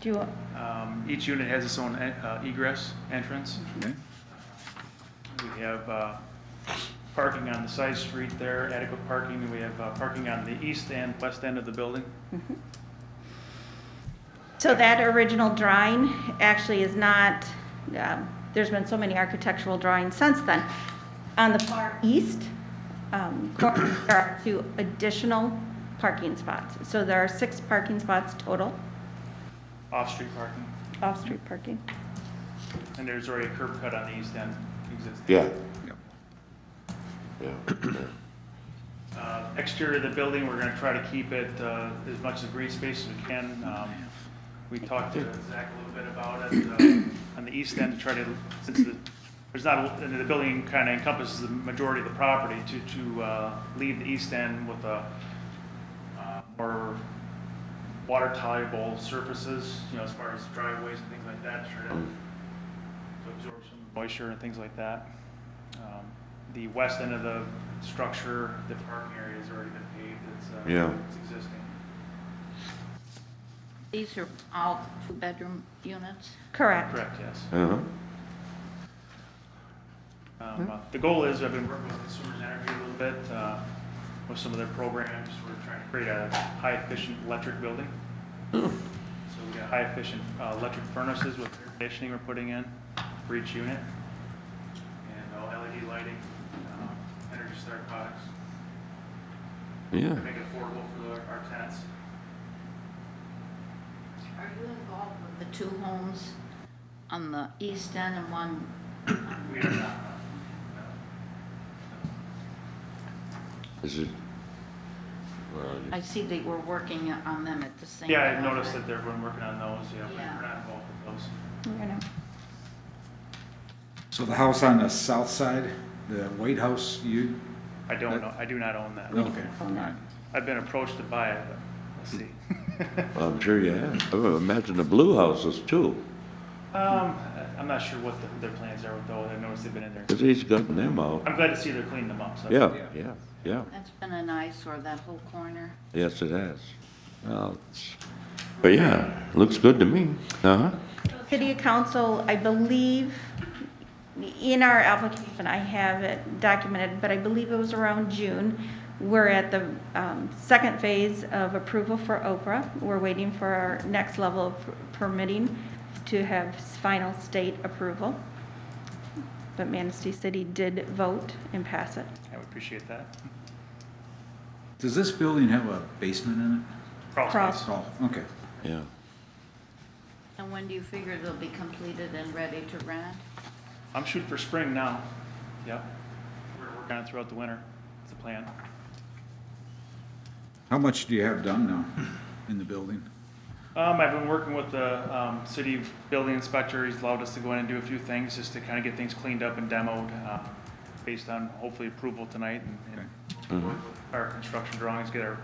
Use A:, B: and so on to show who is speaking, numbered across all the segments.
A: Do you,
B: Um, Each unit has its own uh, egress entrance.
C: Okay.
B: We have uh, parking on the side street there, adequate parking, and we have uh, parking on the east and west end of the building.
A: so that original drawing actually is not, um, there's been so many architectural drawings since then. On the far east, um, corner, there are two additional parking spots. So there are six parking spots total,
B: Off-street parking,
A: off-street parking.
B: and there's already a curb cut on the east end existing.
D: Yeah,
C: Yep.
D: yeah.
B: Uh, Exterior of the building, we're gonna try to keep it uh, as much as green space as we can. Um, We talked to Zach a little bit about it, uh, on the east end, to try to, since the, there's not, and the building kind of encompasses the majority of the property, to, to uh, leave the east end with a uh, more water tolerable surfaces, you know, as far as driveways and things like that, try to to absorb some moisture and things like that. Um, The west end of the structure, the parking area has already been paved, it's, uh,
D: Yeah.
B: it's existing.
E: These are all two-bedroom units?
A: Correct.
B: Correct, yes.
D: Uh-huh.
B: Um, uh, The goal is, I've been working with Consumers Energy a little bit, uh, with some of their programs, we're trying to create a high-efficient electric building. So we got high-efficient uh, electric furnaces with air conditioning we're putting in for each unit, and all LED lighting, um, Energy Star products,
D: Yeah.
B: make it affordable for the- our tenants.
E: Are you involved with the two homes on the east end and one?
B: We are not.
D: Is it? well,
E: I see they were working on them at the same time.
B: Yeah, I noticed that they've been working on those, yeah, we-
E: Yeah.
B: we're not involved with those.
A: We're gonna-
C: So the house on the south side, the White House, you,
B: I don't know, I do not own that.
C: okay, all right.
B: I've been approached to buy it, but let's see.
D: I'm sure you have. I would imagine the blue houses too,
B: Um, I- I'm not sure what the- their plans are with those, I noticed they've been in there.
D: because he's gotten them out.
B: I'm glad to see they're cleaning them up, so.
D: Yeah, yeah, yeah.
E: That's been an eyesore, that whole corner.
D: Yes, it has. Well, it's- But yeah, looks good to me. Uh-huh.
A: City Council, I believe, in our application, I have it documented, but I believe it was around June. We're at the um, second phase of approval for Oprah. We're waiting for our next level of permitting to have final state approval. But Manistee City did vote and pass it.
B: I would appreciate that.
C: Does this building have a basement in
B: Crawl
A: Crawl.
B: space.
C: it? Oh, okay.
D: Yeah.
E: And when do you figure they'll be completed and ready to rent?
B: I'm shooting for spring now, yep. We're working on it throughout the winter, it's the plan.
C: How much do you have done now in the building?
B: Um, I've been working with the, um, city building inspector, he's allowed us to go in and do a few things, just to kinda get things cleaned up and demoed, uh, based on hopefully approval tonight and, and work with our construction drawings, get our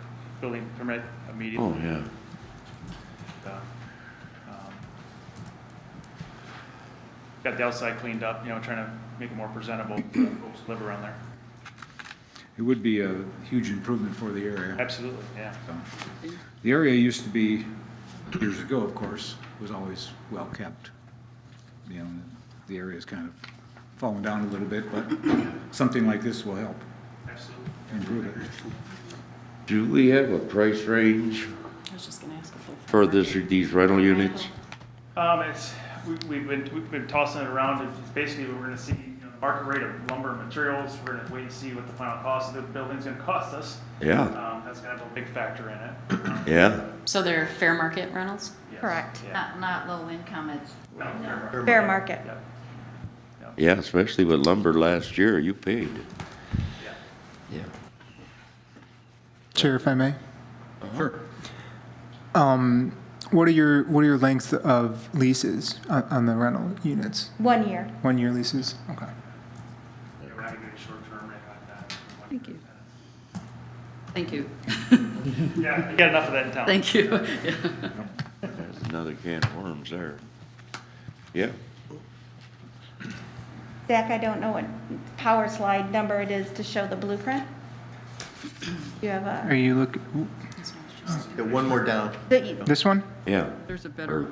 B: building permit
D: Oh,
B: immediately.
D: yeah.
B: uh, um, Got the outside cleaned up, you know, trying to make it more presentable, for folks who live around there.
C: It would be a huge improvement for the area.
B: Absolutely, yeah.
C: so. The area used to be, years ago, of course, was always well-kept. You know, the area's kind of fallen down a little bit, but something like this will help
B: Absolutely.
C: improve it.
D: Do we have a price range
F: I was just gonna ask if they're.
D: for this, these rental units?
B: Um, it's, we, we've been, we've been tossing it around, it's basically, we're gonna see, you know, the market rate of lumber and materials, we're gonna wait and see what the final cost of the building's gonna cost us.
D: Yeah,
B: Um, that's gonna have a big factor in it.
D: yeah.
F: So they're fair market rentals?
B: Yes,
A: Correct.
B: Yeah.
E: Not, not low income, it's,
B: No, fair market,
A: Fair market.
B: Yep.
D: Yeah, especially with lumber last year, you paid.
B: Yeah.
D: Yeah.
G: Chair, if I may,
C: Sure.
G: um, what are your, what are your lengths of leases on, on the rental units?
A: One year.
G: One-year leases? Okay.
B: Yeah, We're not gonna do short term or anything like that.
F: Thank you. Thank you.
B: Yeah, you got enough of that in town.
F: Thank you.
D: There's another can of worms there. Yeah,
A: Zach, I don't know what power slide number it is to show the blueprint. You have
G: Are
A: a,
G: you look,
H: Yeah, one more down.
A: the-
G: this one?
D: yeah.
F: There's a
D: better-